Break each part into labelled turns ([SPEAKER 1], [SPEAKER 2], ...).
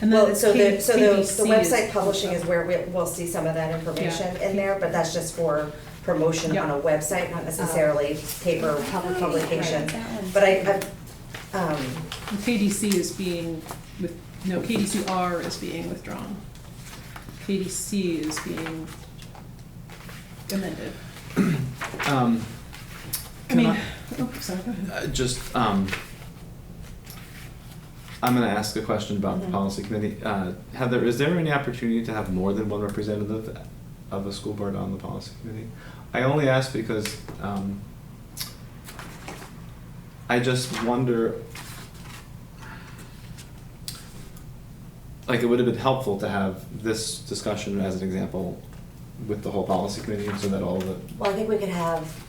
[SPEAKER 1] And
[SPEAKER 2] Well,
[SPEAKER 1] then
[SPEAKER 2] so the, so the, the
[SPEAKER 1] PVC is-
[SPEAKER 2] website publishing is where we, we'll see some of that information in there, but that's just for promotion on a website, not necessarily paper
[SPEAKER 3] Oh,
[SPEAKER 2] publication. But I, I, um,
[SPEAKER 1] And KDC is being with, no, KDCR is being withdrawn. KDC is being amended.
[SPEAKER 4] Um,
[SPEAKER 1] I
[SPEAKER 4] can I,
[SPEAKER 1] mean, oh, sorry, go ahead.
[SPEAKER 4] uh, just, um, I'm gonna ask a question about
[SPEAKER 1] Mm-hmm.
[SPEAKER 4] the policy committee. Uh, Heather, is there any opportunity to have more than one representative of a school board on the policy committee? I only ask because, um, I just wonder, like, it would have been helpful to have this discussion as an example with the whole policy committee so that all the
[SPEAKER 2] well, I think we could have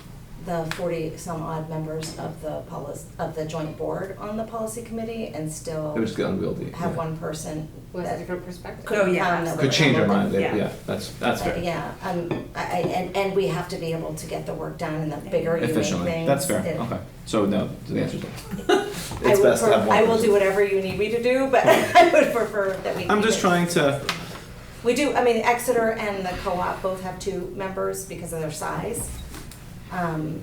[SPEAKER 2] the forty-some odd members of the policy, of the joint board on the policy committee and still
[SPEAKER 4] It would just get unwieldy.
[SPEAKER 2] have
[SPEAKER 4] yeah.
[SPEAKER 2] one person
[SPEAKER 5] Was a
[SPEAKER 2] that
[SPEAKER 5] different perspective.
[SPEAKER 3] Oh,
[SPEAKER 2] could come that
[SPEAKER 4] Could
[SPEAKER 2] would
[SPEAKER 4] change our
[SPEAKER 2] handle
[SPEAKER 4] mind,
[SPEAKER 2] them.
[SPEAKER 4] yeah, yeah, that's, that's
[SPEAKER 2] Uh,
[SPEAKER 4] fair.
[SPEAKER 2] Yeah, um, I, I- and, and we have to be able to get the work done and the bigger you make things.
[SPEAKER 4] Efficiently, that's fair,
[SPEAKER 2] it-
[SPEAKER 4] okay. So no, the answer's no.
[SPEAKER 2] I
[SPEAKER 4] It's
[SPEAKER 2] would
[SPEAKER 4] best to
[SPEAKER 2] pref-
[SPEAKER 4] have one
[SPEAKER 2] I will
[SPEAKER 4] person.
[SPEAKER 2] do whatever you need me to do, but I would prefer that we.
[SPEAKER 4] I'm just
[SPEAKER 2] keep it-
[SPEAKER 4] trying to,
[SPEAKER 2] We do, I mean, Exeter and the co-op both have two members because of their size. Um,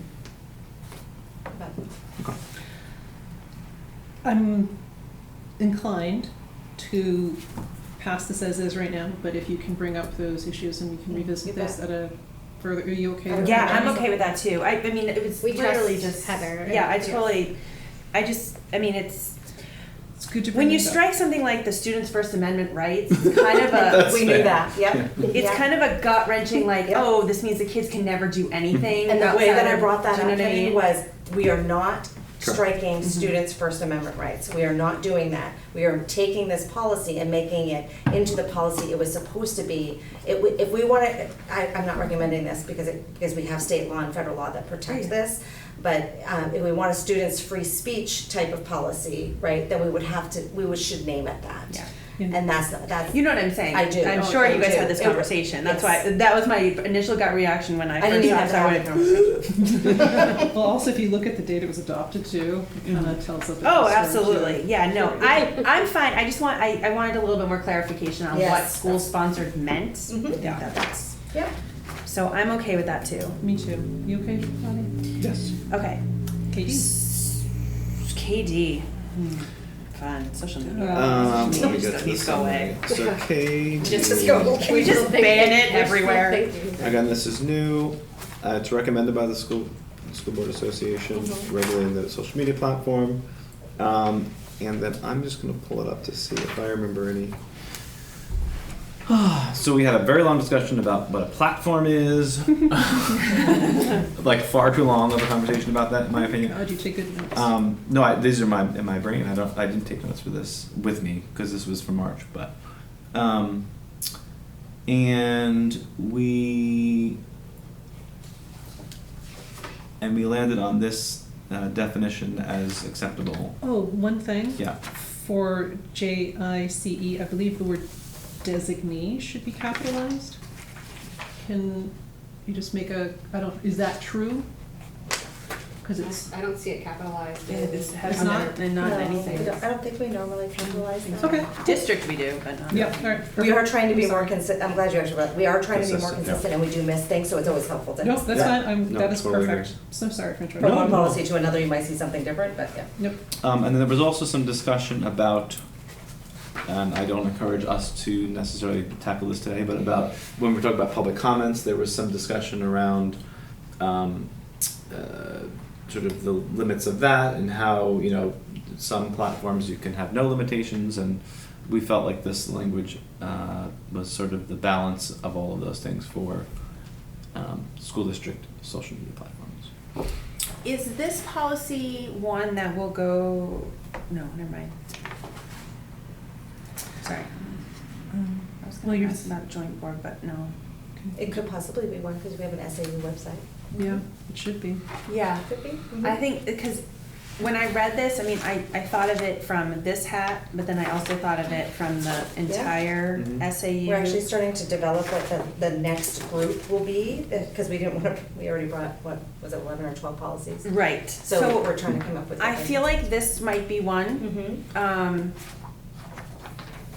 [SPEAKER 2] but
[SPEAKER 1] I'm inclined to pass this as is right now, but if you can bring up those issues and we can
[SPEAKER 2] Mm, you
[SPEAKER 1] revisit this
[SPEAKER 2] bet.
[SPEAKER 1] at a further, are you okay?
[SPEAKER 2] Yeah,
[SPEAKER 1] with
[SPEAKER 3] Yeah,
[SPEAKER 1] that?
[SPEAKER 3] I'm okay with that too. I, I mean, it was
[SPEAKER 5] We trust
[SPEAKER 3] literally just
[SPEAKER 5] Heather.
[SPEAKER 3] Yeah, I
[SPEAKER 5] Yeah.
[SPEAKER 3] totally. I just, I mean, it's
[SPEAKER 1] It's good to bring
[SPEAKER 3] when you
[SPEAKER 1] it up.
[SPEAKER 3] strike something like the Students' First Amendment rights, it's kind of a.
[SPEAKER 4] That's
[SPEAKER 2] We knew
[SPEAKER 4] fair.
[SPEAKER 2] that, yep.
[SPEAKER 3] It's
[SPEAKER 2] yeah.
[SPEAKER 3] kind of a gut wrenching, like,
[SPEAKER 2] Yeah.
[SPEAKER 3] oh, this means the kids can never do anything.
[SPEAKER 2] And the way that I brought that
[SPEAKER 3] Do you know
[SPEAKER 2] up
[SPEAKER 3] what I
[SPEAKER 2] Kenny,
[SPEAKER 3] mean? Mm-hmm.
[SPEAKER 2] was, we are not
[SPEAKER 4] Correct.
[SPEAKER 2] striking students' First Amendment rights. We are not doing that. We are taking this policy and making it into the policy it was supposed to be. It, w- if we want to, I, I'm not recommending this because it, because we have state law and federal law that protects
[SPEAKER 3] Right.
[SPEAKER 2] this. But, um, if we want a student's free speech type of policy, right, then we would have to, we would, should name it that.
[SPEAKER 3] Yeah.
[SPEAKER 1] Yeah.
[SPEAKER 2] And that's, that's,
[SPEAKER 3] You know what I'm saying?
[SPEAKER 2] I do.
[SPEAKER 3] I'm
[SPEAKER 2] Oh,
[SPEAKER 3] sure
[SPEAKER 2] I
[SPEAKER 3] you guys
[SPEAKER 2] do.
[SPEAKER 3] had this
[SPEAKER 2] It-
[SPEAKER 3] conversation. That's
[SPEAKER 2] yes.
[SPEAKER 3] why that was my initial gut reaction when I,
[SPEAKER 2] I didn't
[SPEAKER 3] first
[SPEAKER 2] even
[SPEAKER 3] saw
[SPEAKER 2] have
[SPEAKER 3] it.
[SPEAKER 2] to have a conversation.
[SPEAKER 1] Well, also, if you look at the date it was adopted to, it kind
[SPEAKER 4] Mm-hmm.
[SPEAKER 1] of tells us.
[SPEAKER 3] Oh, absolutely. Yeah, no, I, I'm fine. I just want, I, I wanted a little bit more clarification on what
[SPEAKER 2] Yes.
[SPEAKER 3] school sponsored meant.
[SPEAKER 2] Mhm.
[SPEAKER 3] I think that that's,
[SPEAKER 2] Yep.
[SPEAKER 3] so I'm okay with that too.
[SPEAKER 1] Me too. You okay, Bonnie?
[SPEAKER 4] yes.
[SPEAKER 3] Okay.
[SPEAKER 1] Katie?
[SPEAKER 3] S- KD. Hmm, Fun, social media.
[SPEAKER 4] Um, let
[SPEAKER 3] Just
[SPEAKER 4] me get
[SPEAKER 3] don't
[SPEAKER 4] to the Hmm.
[SPEAKER 3] need to go
[SPEAKER 4] summary.
[SPEAKER 3] away.
[SPEAKER 4] So
[SPEAKER 3] Just
[SPEAKER 4] KD,
[SPEAKER 3] Can we just ban it everywhere?
[SPEAKER 4] again, this is new. Uh, it's recommended by the school, school board association, regulating the social media platform. Um, and then I'm just gonna pull it up to see if I remember any. So we had a very long discussion about what a platform is. Like far too long of a conversation about that, in my opinion.
[SPEAKER 1] Oh, do you take good notes?
[SPEAKER 4] Um, no, I, these are my in my brain. I don't. I didn't take notes for this with me because this was for March. But, um, and we and we landed on this uh, definition as acceptable.
[SPEAKER 1] Oh, one thing.
[SPEAKER 4] Yeah.
[SPEAKER 1] For J I C E, I believe the word designee should be capitalized. Can you just make a, I don't, is that true? Because it's,
[SPEAKER 5] I don't see it capitalized.
[SPEAKER 3] It's
[SPEAKER 1] It's
[SPEAKER 3] has not, and not
[SPEAKER 2] No, we
[SPEAKER 3] anything.
[SPEAKER 2] don't- I don't think we normally capitalize that.
[SPEAKER 1] okay.
[SPEAKER 3] District we do, but not.
[SPEAKER 1] Yeah, all right.
[SPEAKER 2] We are trying to be
[SPEAKER 1] I'm
[SPEAKER 2] more
[SPEAKER 1] sorry.
[SPEAKER 2] consistent, I'm glad you actually brought, we are trying to be more
[SPEAKER 4] Consistent, yeah.
[SPEAKER 2] consistent and we do miss things, so it's always helpful to.
[SPEAKER 1] No, that's
[SPEAKER 4] Yeah.
[SPEAKER 1] fine. I'm,
[SPEAKER 4] No,
[SPEAKER 1] that is
[SPEAKER 4] totally agree.
[SPEAKER 1] perfect. So sorry for interrupting.
[SPEAKER 2] From
[SPEAKER 4] No,
[SPEAKER 2] one
[SPEAKER 4] no.
[SPEAKER 2] policy to another, you might see something different, but yeah.
[SPEAKER 1] Nope.
[SPEAKER 4] Um, and then there was also some discussion about, and I don't encourage us to necessarily tackle this today, but about when we talk about public comments, there was some discussion around um, uh, sort of the limits of that and how you know some platforms you can have no limitations, and we felt like this language uh, was sort of the balance of all of those things for um, school district social media platforms.
[SPEAKER 3] Is this policy one that will go, no, never mind. Sorry. I was
[SPEAKER 1] Well,
[SPEAKER 3] gonna
[SPEAKER 1] you're-
[SPEAKER 3] ask about joint board, but no.
[SPEAKER 2] It could possibly be one, because we have an SAU website.
[SPEAKER 1] Yeah, it should be.
[SPEAKER 3] Yeah.
[SPEAKER 2] Could be.
[SPEAKER 3] I think, because when I read this, I mean, I, I thought of it from this hat, but then I also thought of it from the entire
[SPEAKER 4] Mhm.
[SPEAKER 3] SAU.
[SPEAKER 2] We're actually starting to develop what the, the next group will be, because we didn't want to, we already brought, what, was it eleven or twelve policies?
[SPEAKER 3] Right,
[SPEAKER 2] So
[SPEAKER 3] so
[SPEAKER 2] we're trying to come up with.
[SPEAKER 3] I feel like this might be one,
[SPEAKER 2] Mm-hmm.
[SPEAKER 3] um,